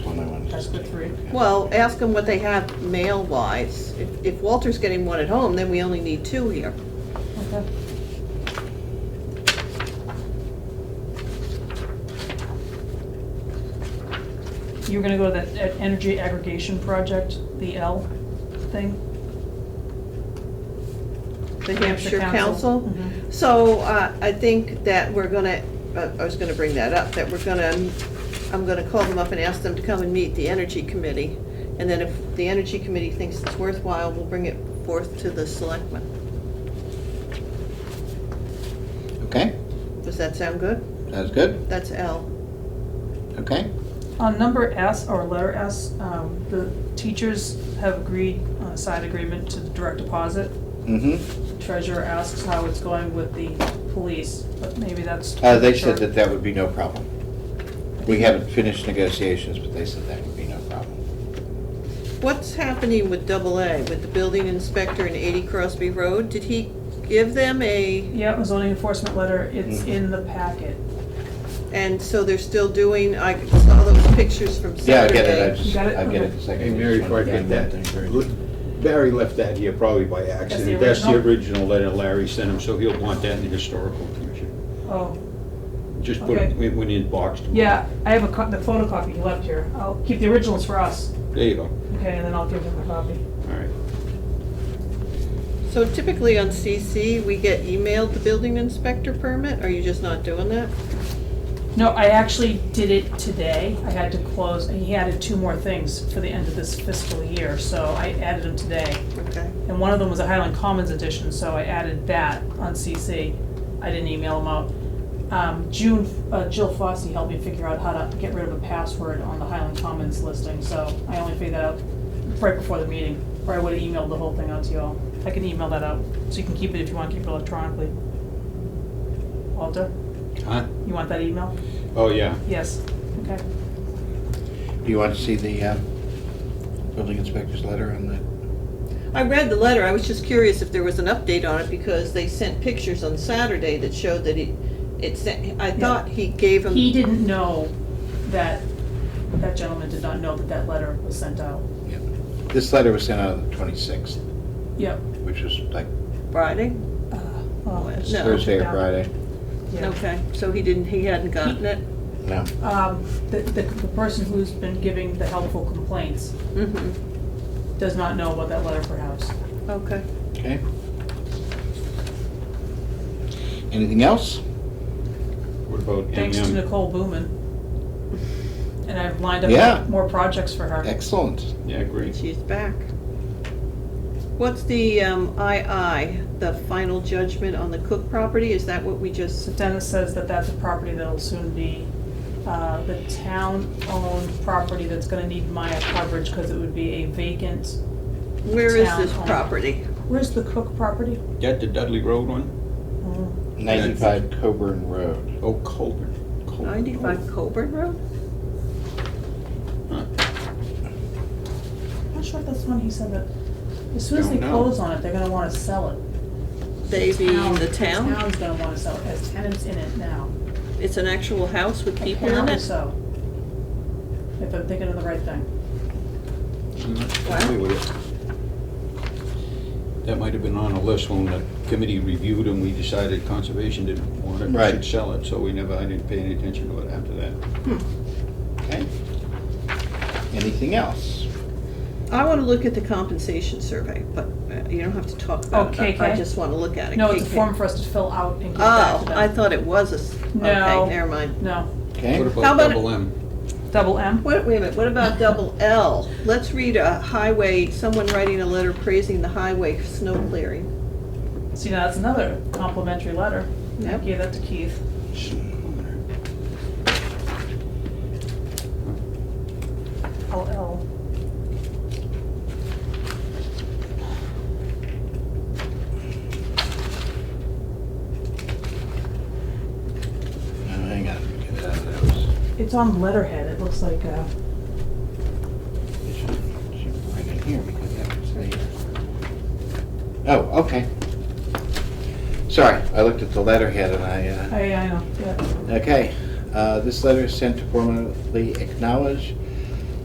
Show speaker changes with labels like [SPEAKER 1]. [SPEAKER 1] ask the three.
[SPEAKER 2] Well, ask them what they have mail-wise. If if Walter's getting one at home, then we only need two here.
[SPEAKER 3] Okay.
[SPEAKER 1] You were gonna go to that e- energy aggregation project, the L thing?
[SPEAKER 2] The Hampshire Council.
[SPEAKER 1] Mm-hmm.
[SPEAKER 2] So uh, I think that we're gonna, uh, I was gonna bring that up, that we're gonna, I'm gonna call them up and ask them to come and meet the Energy Committee. And then if the Energy Committee thinks it's worthwhile, we'll bring it forth to the selectmen.
[SPEAKER 4] Okay,
[SPEAKER 2] Does that sound good?
[SPEAKER 4] that's good,
[SPEAKER 2] That's L.
[SPEAKER 4] okay?
[SPEAKER 1] On number S, or letter S, um, the teachers have agreed on a side agreement to the direct deposit.
[SPEAKER 4] Mm-hmm.
[SPEAKER 1] The Treasurer asks how it's going with the police, but maybe that's.
[SPEAKER 4] Uh, they said that that would be no problem. We haven't finished negotiations, but they said that would be no problem.
[SPEAKER 2] What's happening with double A, with the building inspector in 80 Crosby Road? Did he give them a,
[SPEAKER 1] Yeah, it was only enforcement letter, it's
[SPEAKER 4] Mhm.
[SPEAKER 1] in the packet.
[SPEAKER 2] and so they're still doing, I saw those pictures from
[SPEAKER 4] Yeah, I
[SPEAKER 2] Saturday.
[SPEAKER 4] get it, I just,
[SPEAKER 1] You got it?
[SPEAKER 4] I get it
[SPEAKER 1] Okay.
[SPEAKER 4] in a second.
[SPEAKER 5] Hey, Mary, before I get that, look, Barry left that here probably by accident. That's the original letter Larry sent him, so he'll want that in the historical commission.
[SPEAKER 1] Oh,
[SPEAKER 5] Just put it, it went in box.
[SPEAKER 1] yeah, I have a co- the photocopy he left here. I'll keep the originals for us,
[SPEAKER 5] There you go, all
[SPEAKER 1] okay, and then I'll give him the copy.
[SPEAKER 5] right.
[SPEAKER 2] So typically on CC, we get emailed the building inspector permit, are you just not doing that?
[SPEAKER 1] No, I actually did it today. I had to close, and he added two more things for the end of this fiscal year, so I added them today.
[SPEAKER 2] Okay.
[SPEAKER 1] And one of them was a Highland Commons edition, so I added that on CC. I didn't email them out. Um, June, uh, Jill Fossey helped me figure out how to get rid of a password on the Highland Commons listing, so I only figured that out right before the meeting, or I would've emailed the whole thing out to you all. I can email that out, so you can keep it if you wanna keep it electronically. Walter,
[SPEAKER 5] Huh?
[SPEAKER 1] you want that email?
[SPEAKER 5] Oh, yeah.
[SPEAKER 1] Yes, okay.
[SPEAKER 4] Do you want to see the uh, building inspector's letter on that?
[SPEAKER 2] I read the letter, I was just curious if there was an update on it, because they sent pictures on Saturday that showed that he, it sent, I thought he gave him.
[SPEAKER 1] He didn't know that, that gentleman did not know that that letter was sent out.
[SPEAKER 4] Yeah. This letter was sent out on the 26th,
[SPEAKER 1] Yep.
[SPEAKER 4] which was like
[SPEAKER 2] Friday?
[SPEAKER 1] Uh, well, it's-
[SPEAKER 2] No.
[SPEAKER 4] Thursday or Friday.
[SPEAKER 1] Yeah.
[SPEAKER 2] Okay, so he didn't, he hadn't gotten it?
[SPEAKER 4] No.
[SPEAKER 1] Um, the, the, the person who's been giving the helpful complaints
[SPEAKER 2] Mm-hmm,
[SPEAKER 1] does not know about that letter perhaps.
[SPEAKER 2] okay.
[SPEAKER 4] Okay. Anything else?
[SPEAKER 5] What about
[SPEAKER 1] Thanks to
[SPEAKER 5] MM?
[SPEAKER 1] Nicole Booman. And I've lined
[SPEAKER 4] Yeah.
[SPEAKER 1] up more projects for her.
[SPEAKER 4] Excellent.
[SPEAKER 5] Yeah, great.
[SPEAKER 2] She's back. What's the, um, II, the final judgment on the Cook property, is that what we just?
[SPEAKER 1] So Dennis says that that's a property that'll soon be, uh, the town-owned property that's gonna need Maya coverage because it would be a vacant.
[SPEAKER 2] Where is this
[SPEAKER 1] Town.
[SPEAKER 2] property?
[SPEAKER 1] Where's the Cook property? Oh,
[SPEAKER 5] That the Dudley Road one?
[SPEAKER 4] 95 Coburn Road.
[SPEAKER 5] Oh, Colburn. Colburn.
[SPEAKER 2] Ninety-five Coburn Road?
[SPEAKER 5] Huh.
[SPEAKER 1] I'm not sure if that's the one he said that, as soon as they
[SPEAKER 5] Don't know.
[SPEAKER 1] close on it, they're gonna wanna sell it.
[SPEAKER 2] They being the town?
[SPEAKER 1] Town's gonna wanna sell it, has tenants in it now.
[SPEAKER 2] It's an actual house with people in
[SPEAKER 1] Apparently
[SPEAKER 2] it?
[SPEAKER 1] so. If I'm thinking of the right thing.
[SPEAKER 5] I'm not familiar with it. That might have been on a list when the committee reviewed and we decided conservation didn't want it, we
[SPEAKER 4] Right.
[SPEAKER 5] should sell it, so we never, I didn't pay any attention to it after that.
[SPEAKER 4] Okay. Anything else?
[SPEAKER 2] I wanna look at the compensation survey, but uh, you don't have to talk about it.
[SPEAKER 1] Oh,
[SPEAKER 2] I- I
[SPEAKER 1] KK?
[SPEAKER 2] just wanna look at it.
[SPEAKER 1] No, it's a
[SPEAKER 2] KK.
[SPEAKER 1] form for us to fill out and give back
[SPEAKER 2] Oh,
[SPEAKER 1] to them.
[SPEAKER 2] I thought it was a, s-
[SPEAKER 1] No.
[SPEAKER 2] okay, never mind.
[SPEAKER 1] No,
[SPEAKER 4] Okay.
[SPEAKER 5] What
[SPEAKER 2] How
[SPEAKER 5] about
[SPEAKER 2] about-
[SPEAKER 5] double M?
[SPEAKER 1] double M?
[SPEAKER 2] What, wait a minute, what about double L? Let's read a highway, someone writing a letter praising the highway for snow clearing.
[SPEAKER 1] See, now that's another complimentary letter. I
[SPEAKER 2] Yep.
[SPEAKER 1] gave that to Keith. L L.
[SPEAKER 4] Oh, hang on. Get it out of those.
[SPEAKER 1] It's on letterhead, it looks like, uh,
[SPEAKER 4] It should- it should Right in here because that was the. Oh, okay. Sorry, I looked at the letterhead and I. Uh,
[SPEAKER 1] I, I know, yeah.
[SPEAKER 4] Okay, uh, this letter is sent to formally acknowledge